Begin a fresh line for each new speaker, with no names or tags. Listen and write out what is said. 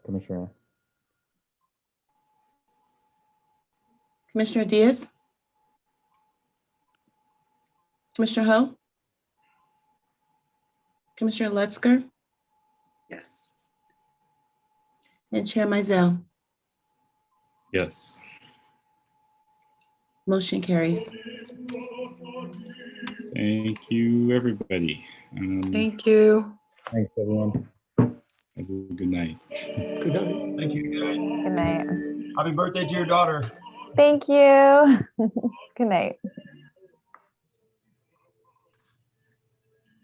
Commissioner.
Commissioner Diaz? Commissioner Ho? Commissioner Lutzker
Yes.
and Chair Mizell.
Yes.
Motion carries.
Thank you, everybody. Um,
Thank you.
Thanks, everyone.
have a good night.
Good night.
Thank you.
Good night.
Happy birthday to your daughter.
Thank you. Good night.